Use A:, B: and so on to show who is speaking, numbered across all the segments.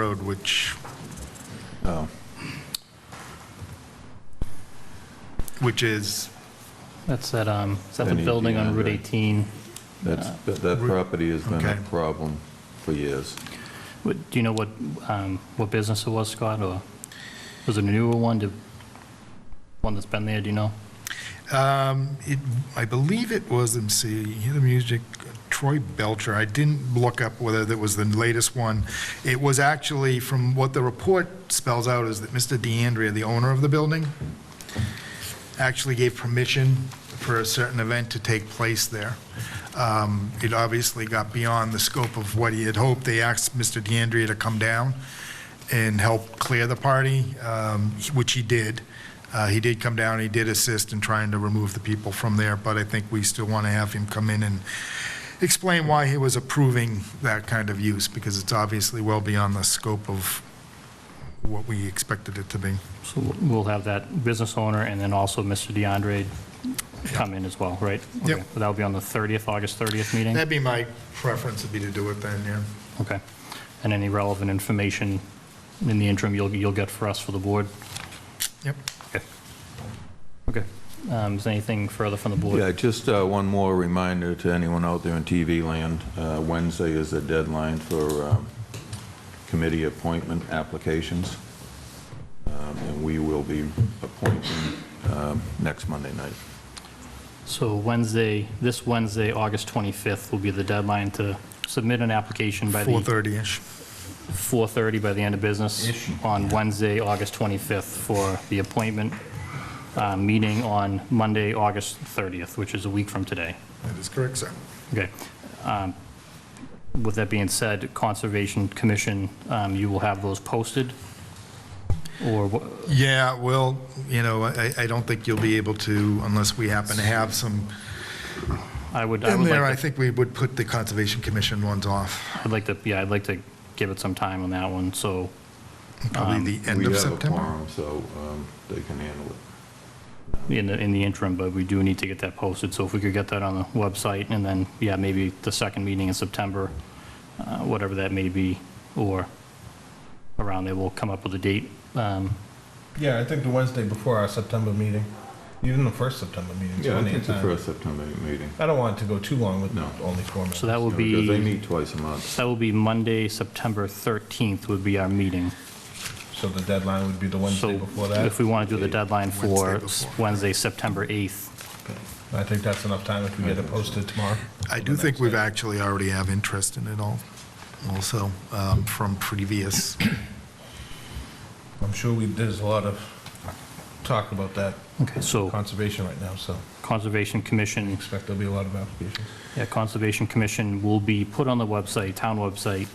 A: Road, which,
B: Oh,
A: which is,
C: That's that, um, is that the
B: Any
C: building on Route
B: DeAndre?
C: 18?
B: that's, that that property has been a
A: Uh, Okay.
B: problem for years.
C: What, do you know what, um, what business it was, Scott, or was it a newer one, Did- one that's been there, do you know?
A: um, it, I believe it was, let me see, hear the music, Troy Belcher. I didn't look up whether that was the latest one. It was actually, from what the report spells out, is that Mr. DeAndrea, the owner of the building, actually gave permission for a certain event to take place there. Um, It obviously got beyond the scope of what he had hoped. They asked Mr. DeAndrea to come down and help clear the party, um, which he did. Uh, He did come down, he did assist in trying to remove the people from there, but I think we still want to have him come in and explain why he was approving that kind of use, because it's obviously well beyond the scope of what we expected it to be.
C: So we'll have that business owner and then also Mr. DeAndre come in as well, right?
A: Yep.
C: Okay, That'll be on the 30th, August 30th meeting?
A: That'd be my preference, would be to do it then, yeah.
C: Okay. And any relevant information in the interim you'll, you'll get for us for the board?
A: Yep.
C: Okay. Okay. Um, Is there anything further from the board?
B: Yeah, just uh, one more reminder to anyone out there in TV land, uh, Wednesday is the deadline for um, committee appointment applications, Um, and we will be appointing um, next Monday night.
C: So Wednesday, this Wednesday, August 25th will be the deadline to submit an application by the...
A: 4:30-ish.
C: 4:30 by the end of business on Wednesday, August 25th for the appointment uh, meeting on Monday, August 30th, which is a week from today.
A: That is correct, sir.
C: Okay. Um, With that being said, Conservation Commission, um, you will have those posted? Or, wha-
A: Yeah, well, you know, I, I don't think you'll be able to unless we happen to have some.
C: I would, I
A: In
C: would
A: there, I
C: like to,
A: think we would put the Conservation Commission ones off,
C: I'd like to, yeah, I'd like to give it some time on that one, so, Um,
A: probably the end of
B: We have a
A: September.
B: quorum, so um, they can handle it.
C: in the, in the interim, but we do need to get that posted, so if we could get that on the website, and then, yeah, maybe the second meeting in September, uh, whatever that may be, or around there, we'll come up with a date. Um,
D: Yeah, I think the Wednesday before our September meeting, even the first September meeting.
B: Yeah, I think it's the first September meeting.
D: I don't want it to go too long with
B: No.
D: only four minutes.
C: So that will
B: Because they
C: be,
B: meet twice a month.
C: that will be Monday, September 13th would be our meeting.
D: So the deadline would be the
C: So
D: Wednesday before that.
C: if we want to do the deadline
A: Wednesday
C: for s-
A: before.
C: Wednesday, September 8th,
D: I think that's enough time if we get it posted tomorrow.
A: I do think we've actually already have interest in it all, also, um, from previous.
D: I'm sure we, there's a lot of talk about that
C: okay, so
D: conservation right now, so
C: Conservation Commission
D: expect there'll be a lot of applications.
C: Yeah, Conservation Commission will be put on the website, town website.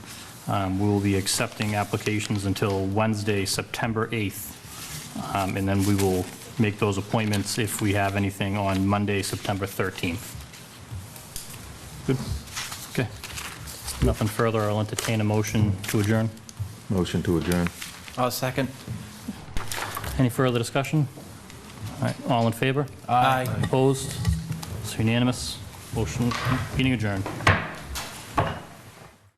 C: Um, We will be accepting applications until Wednesday, September 8th. Um, And then we will make those appointments if we have anything on Monday, September 13th. Good. Okay. Nothing further. I'll entertain a motion to adjourn.
B: Motion to adjourn.
E: I'll second.
C: Any further discussion? All right, all in favor?
E: Aye.
C: Opposed? It's unanimous. Motion, meeting adjourned.